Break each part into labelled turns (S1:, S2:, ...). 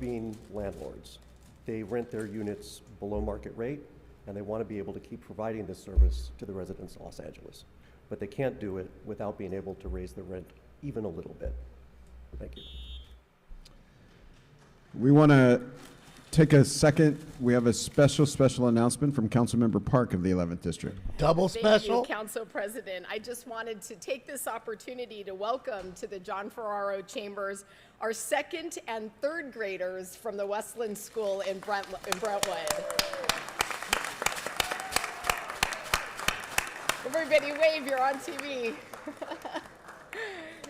S1: being landlords. They rent their units below market rate, and they want to be able to keep providing this service to the residents of Los Angeles. But they can't do it without being able to raise the rent even a little bit. Thank you.
S2: We want to take a second. We have a special, special announcement from Councilmember Park of the 11th District.
S3: Double special?
S4: Thank you, Council President. I just wanted to take this opportunity to welcome to the John Ferraro Chambers our second and third graders from the Westland School in Brent- in Brentwood. Everybody wave, you're on TV.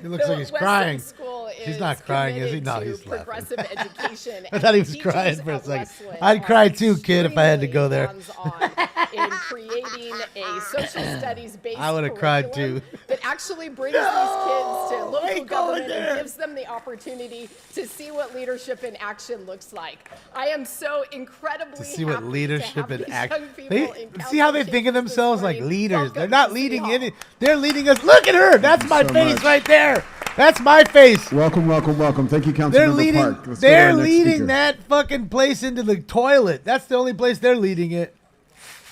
S3: He looks like he's crying.
S4: School is
S3: He's not crying, is he?
S4: committed
S3: No,
S4: to
S3: he's laughing.
S4: progressive education.
S3: I thought he
S4: and
S3: was crying
S4: teachers
S3: for a
S4: at
S3: second.
S4: Westland
S3: I'd
S4: are
S3: cry too, kid, if I had to go there.
S4: extremely hands-on in creating a social studies based
S3: I would've cried too.
S4: that actually brings these kids to local
S3: ain't going
S4: government
S3: there.
S4: and gives them the opportunity to see what leadership in action looks like. I am so incredibly
S3: To see what
S4: happy to
S3: leadership
S4: have
S3: and
S4: these
S3: act.
S4: young people
S3: They,
S4: in
S3: see how they
S4: council
S3: think of
S4: chambers this
S3: themselves like
S4: morning.
S3: leaders. They're
S4: Welcome
S3: not
S4: to City
S3: leading
S4: Hall.
S3: any. They're leading us. Look at her. That's
S2: you
S3: my
S2: so
S3: face
S2: much.
S3: right there. That's my face.
S2: Welcome, welcome, welcome. Thank you,
S3: They're
S2: Councilmember
S3: leading.
S2: Park. Let's go to our
S3: they're
S2: next
S3: leading
S2: speaker.
S3: that fucking place into the toilet. That's the only place they're leading it.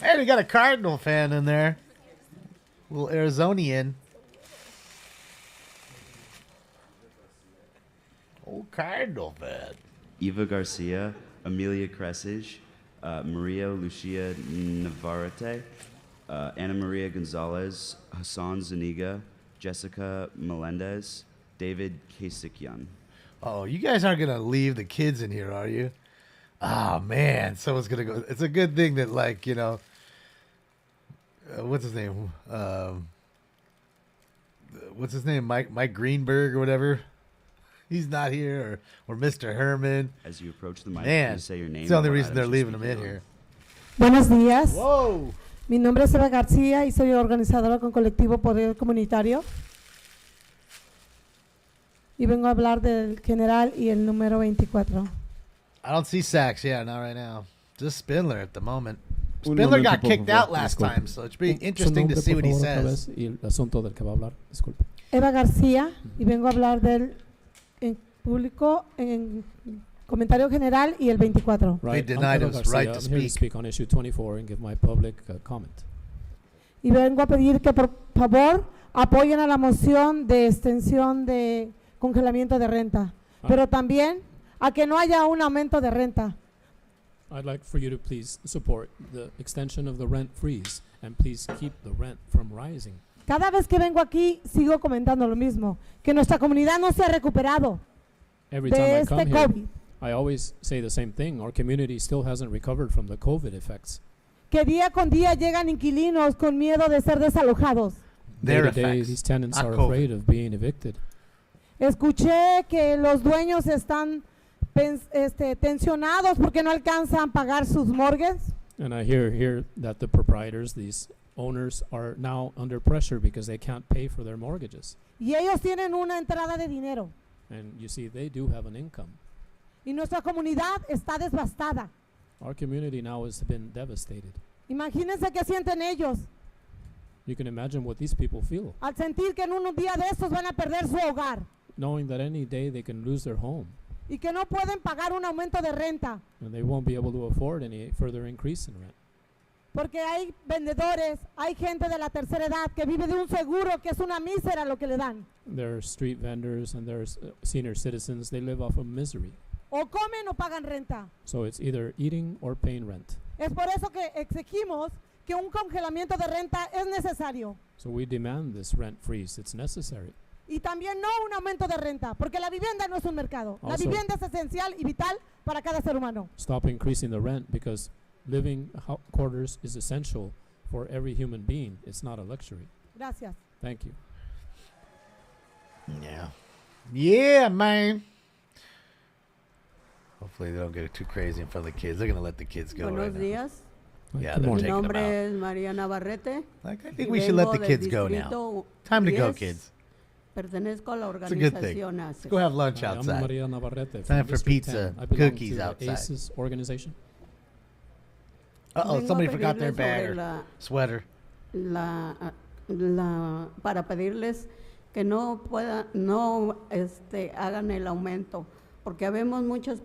S3: And we got a Cardinal fan in there. Little Arizonian. Old Cardinal fan.
S5: Eva Garcia, Amelia Cressage, uh, Maria Lucia Navarrete, uh, Ana Maria Gonzalez, Hassan Zuniga, Jessica Melendez, David Kasikyan.
S3: Oh, you guys aren't gonna leave the kids in here, are you? Ah man, someone's gonna go. It's a good thing that like you know, uh, what's his name? Um, what's his name? Mike Mike Greenberg or whatever. He's not here, or or Mr. Herman.
S5: As you approach the mic,
S3: Man,
S5: please say your name.
S3: it's the only
S5: and what
S3: reason they're
S5: items you're
S3: leaving him in
S5: speaking on.
S3: here.
S6: Buenos días.
S3: Whoa!
S6: Mi nombre es Eva García y soy organizadora con Colectivo Poder Comunitario. Y vengo a hablar del general y el número 24.
S3: I don't see sacks. Yeah, not right now. Just Spindler at the moment.
S2: Un
S3: Spindler
S2: momento,
S3: got
S2: por
S3: kicked
S2: favor.
S3: out last
S2: Disculpe.
S3: time, so it should be
S7: Su
S3: interesting to
S7: nombre,
S3: see
S7: por
S3: what he
S7: favor, otra
S3: says.
S7: vez, y el asunto del que va a hablar, disculpe.
S6: Eva García y vengo a hablar del en público en comentario general y el 24.
S3: denied
S7: Eva
S3: us right to
S7: I'm here to
S3: speak.
S7: speak on issue 24 and give my public uh, comment.
S6: Y vengo a pedir que por favor apoyen a la moción de extensión de congelamiento de renta,
S7: Ah.
S6: pero también a que no haya un aumento de renta.
S7: I'd like for you to please support the extension of the rent freeze and please keep the rent from rising.
S6: Cada vez que vengo aquí sigo comentando lo mismo, que nuestra comunidad no se ha recuperado
S7: Every
S6: de
S7: time I
S6: este
S7: come here,
S6: COVID,
S7: I always say the same thing. Our community still hasn't recovered from the COVID effects.
S6: que día con día llegan inquilinos con miedo de ser desalojados.
S7: Day
S3: Their
S7: to day,
S3: effects,
S7: these tenants
S3: not
S7: are
S3: COVID.
S7: afraid of being evicted.
S6: Escuché que los dueños están pens- este, tensionados porque no alcanzan a pagar sus morgues.
S7: And I hear here that the proprietors, these owners, are now under pressure because they can't pay for their mortgages.
S6: y ellos tienen una entrada de dinero.
S7: And you see, they do have an income.
S6: Y nuestra comunidad está devastada.
S7: Our community now has been devastated.
S6: Imagínense qué sienten ellos
S7: You can imagine what these people feel,
S6: al sentir que en un día de estos van a perder su hogar
S7: knowing that any day they can lose their home
S6: y que no pueden pagar un aumento de renta
S7: and they won't be able to afford any further increase in rent.
S6: porque hay vendedores, hay gente de la tercera edad que vive de un seguro que es una mísera lo que le dan.
S7: There are street vendors and there's uh, senior citizens, they live off of misery.
S6: O comen o pagan renta.
S7: So it's either eating or paying rent.
S6: Es por eso que exigimos que un congelamiento de renta es necesario.
S7: So we demand this rent freeze, it's necessary.
S6: Y también no un aumento de renta, porque la vivienda no es un mercado. La
S7: Also-
S6: vivienda es esencial y vital para cada ser humano.
S7: Stop increasing the rent because living ho- quarters is essential for every human being, it's not a luxury.
S6: Gracias.
S7: Thank you.
S3: Yeah. Yeah, man. Hopefully they don't get too crazy in front of the kids. They're gonna let the kids go.
S8: Buenos
S3: right
S8: días.
S3: Yeah,
S7: Good
S3: they're
S7: morning.
S8: Mi
S3: taking 'em out.
S8: nombre es María Navarrete.
S3: Now. Like I think
S8: y
S3: we should let
S8: vengo
S3: the
S8: del
S3: kids go now.
S8: distrito
S3: Time to go,
S8: 10.
S3: kids.
S8: Pertenezco a la
S3: It's a good thing.
S8: organización
S3: Let's
S8: ACES.
S3: go have lunch
S7: Hi, I'm
S3: outside.
S7: Maria Navarrete from
S3: Time for
S7: District
S3: pizza,
S7: 10. I belong
S3: cookies
S7: to the
S3: outside.
S7: ACES organization.
S3: Uh oh,
S8: Vengo a
S3: somebody forgot their
S8: pedirles
S3: bag
S8: sobre
S3: or
S8: la-
S3: sweater.
S8: la, uh, la- para pedirles que no pueda, no este, hagan el aumento, porque habemos muchas